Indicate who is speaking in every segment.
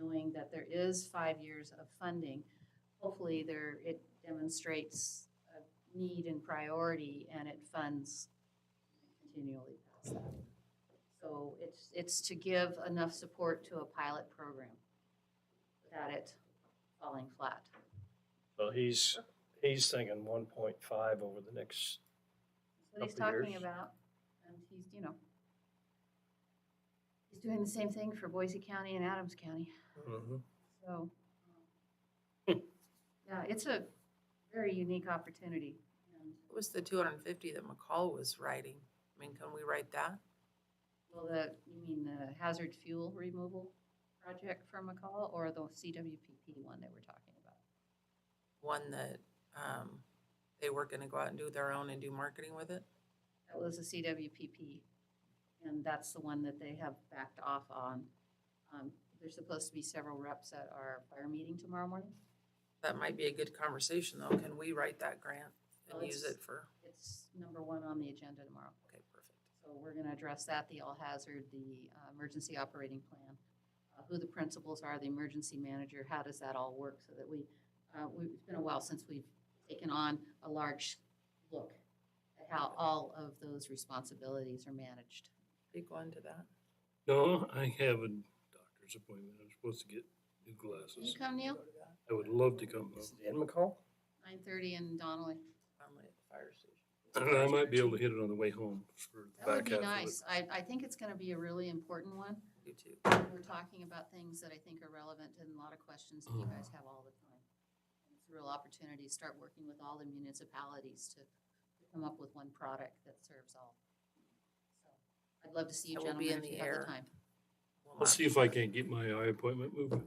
Speaker 1: knowing that there is five years of funding. Hopefully there, it demonstrates a need and priority and it funds continually past that. So it's, it's to give enough support to a pilot program without it falling flat.
Speaker 2: So he's, he's thinking one point five over the next,
Speaker 1: That's what he's
Speaker 2: Couple
Speaker 1: talking
Speaker 2: years.
Speaker 1: about, and he's, you know, he's doing the same thing for Boise County and Adams County, so. um, Yeah, it's a very unique opportunity, and,
Speaker 3: What was the two hundred and fifty that McCall was writing? I mean, can we write that?
Speaker 1: well, the, you mean the hazard fuel removal project from McCall, or the CWPP one that we're talking about?
Speaker 3: One that, um, they were gonna go out and do their own and do marketing with it?
Speaker 1: That was the CWPP, and that's the one that they have backed off on. Um, There's supposed to be several reps at our fire meeting tomorrow morning.
Speaker 3: That might be a good conversation though. Can we write that grant
Speaker 1: Well,
Speaker 3: and use
Speaker 1: it's-
Speaker 3: it for,
Speaker 1: It's number one on the agenda tomorrow.
Speaker 3: okay, perfect.
Speaker 1: So we're going to address that, the all hazard, the uh, emergency operating plan, uh, who the principals are, the emergency manager, how does that all work? So that we, uh, we- it's been a while since we've taken on a large look at how all of those responsibilities are managed.
Speaker 3: Are you going to that?
Speaker 4: No, I have a doctor's appointment. I'm supposed to get new
Speaker 1: Can you
Speaker 4: glasses.
Speaker 1: come, Neil?
Speaker 4: I would love to come
Speaker 2: is
Speaker 4: though.
Speaker 2: it in McCall?
Speaker 1: 9:30 in Donnelly.
Speaker 3: Finally at the fire station.
Speaker 4: And I might be able to hit it on the way home for the
Speaker 1: That would
Speaker 4: back
Speaker 1: be
Speaker 4: half
Speaker 1: nice. I, I think it's going to be a really important one.
Speaker 3: You too.
Speaker 1: We're talking about things that I think are relevant and a lot of questions that you
Speaker 4: Mm-hmm.
Speaker 1: guys have all the time. It's a real opportunity to start working with all the municipalities to come up with one product that serves all. So I'd love to see you
Speaker 3: That will be
Speaker 1: gentlemen
Speaker 3: in
Speaker 1: if you
Speaker 3: the
Speaker 1: have the
Speaker 3: air.
Speaker 1: time.
Speaker 3: We'll
Speaker 4: I'll
Speaker 3: not-
Speaker 4: see if I can get my eye appointment moved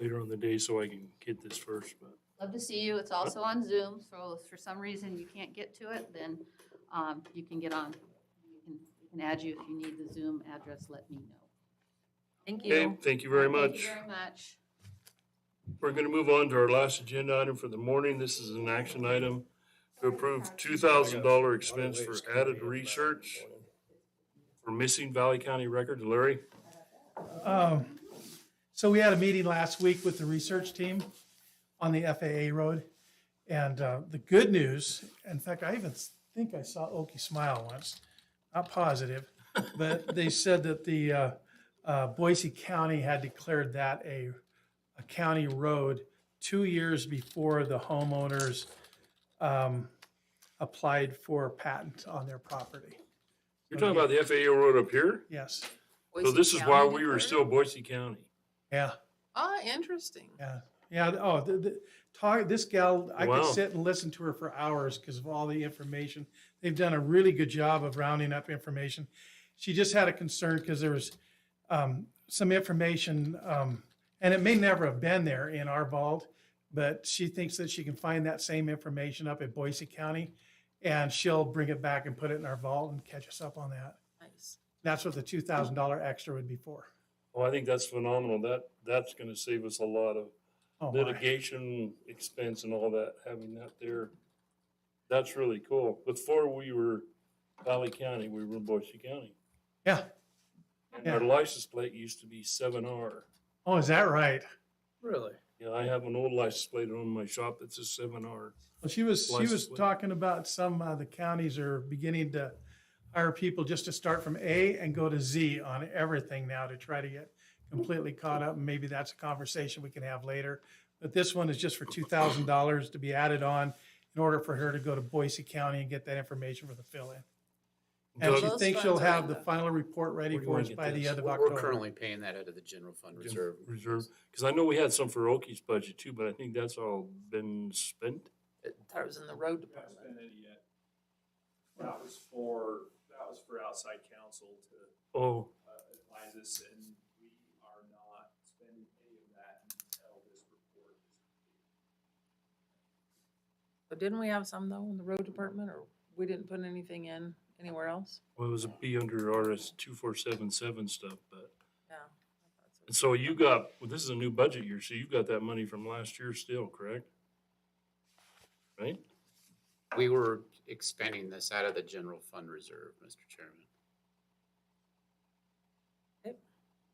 Speaker 4: later on the day so I can get this first, but
Speaker 1: Love to see you. It's also on Zoom, so if for some reason you can't get to it, then um, you can get on. You can- We can add you if you need the Zoom address, let me know.
Speaker 3: Thank
Speaker 4: Okay,
Speaker 3: you.
Speaker 4: thank you very
Speaker 1: Thank
Speaker 4: much.
Speaker 1: you very much.
Speaker 4: We're gonna move on to our last agenda item for the morning. This is an action item to approve two thousand dollar expense for added research for missing Valley County records. Larry?
Speaker 5: Um, So we had a meeting last week with the research team on the FAA road. And uh, the good news, in fact, I even think I saw Oki smile once, not positive, but they said that the uh, uh, Boise County had declared that a, a county road two years before the homeowners um, applied for a patent on their property.
Speaker 4: You're talking about the FAA road up here?
Speaker 5: Yes,
Speaker 4: So
Speaker 3: Boise
Speaker 4: this is why
Speaker 3: County
Speaker 4: we were
Speaker 3: declared?
Speaker 4: still Boise County.
Speaker 5: yeah.
Speaker 3: Ah, interesting.
Speaker 5: Yeah, yeah. Oh, the, the, talk, this gal, I
Speaker 4: Wow.
Speaker 5: could sit and listen to her for hours because of all the information. They've done a really good job of rounding up information. She just had a concern because there was um, some information, um, and it may never have been there in our vault, but she thinks that she can find that same information up at Boise County, and she'll bring it back and put it in our vault and catch us up on that.
Speaker 3: Nice.
Speaker 5: That's what the two thousand dollar extra would be for.
Speaker 4: Well, Oh, I think that's phenomenal. That, that's gonna save us a lot of
Speaker 5: Oh, my.
Speaker 4: litigation expense and all that, having that there. That's really cool. Before we were Valley County, we were Boise County.
Speaker 5: Yeah.
Speaker 4: And our
Speaker 5: Yeah.
Speaker 4: license plate used to be seven R.
Speaker 5: Oh, is that right?
Speaker 2: Really?
Speaker 4: Yeah, I have an old license plate on my shop that says seven R.
Speaker 5: Well, she was, she
Speaker 4: License
Speaker 5: was
Speaker 4: plate.
Speaker 5: talking about some, uh, the counties are beginning to hire people just to start from A and go to Z on everything now to try to get completely caught up. And maybe that's a conversation we can have later. But this one is just for two thousand dollars to be added on in order for her to go to Boise County and get that information for the fill-in. And she
Speaker 3: Those
Speaker 5: thinks she'll
Speaker 3: funds are in
Speaker 5: have the
Speaker 3: the-
Speaker 5: final report ready
Speaker 4: Where do you
Speaker 5: for
Speaker 4: wanna
Speaker 5: us
Speaker 4: get
Speaker 5: by the
Speaker 4: this?
Speaker 5: end of
Speaker 6: We're- We're
Speaker 5: October.
Speaker 6: currently paying that out of the general fund
Speaker 4: Gen-
Speaker 6: reserve.
Speaker 4: Reserve, because I know we had some for Oki's budget too, but I think that's all been spent.
Speaker 3: I thought it was in the road
Speaker 7: We haven't
Speaker 3: department.
Speaker 7: spent any yet. That was for, that was for outside counsel to
Speaker 4: Oh,
Speaker 7: uh, advise us, and we are not spending any of that until this report is completed.
Speaker 3: But didn't we have some though in the road department or we didn't put anything in anywhere else?
Speaker 4: well, it was a B under RS two four seven seven stuff, but,
Speaker 3: Yeah.
Speaker 4: and so you got, well, this is a new budget year, so you've got that money from last year still, correct? Right?
Speaker 6: We were expending this out of the general fund reserve, Mr. Chairman.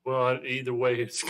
Speaker 4: Well, either way, it's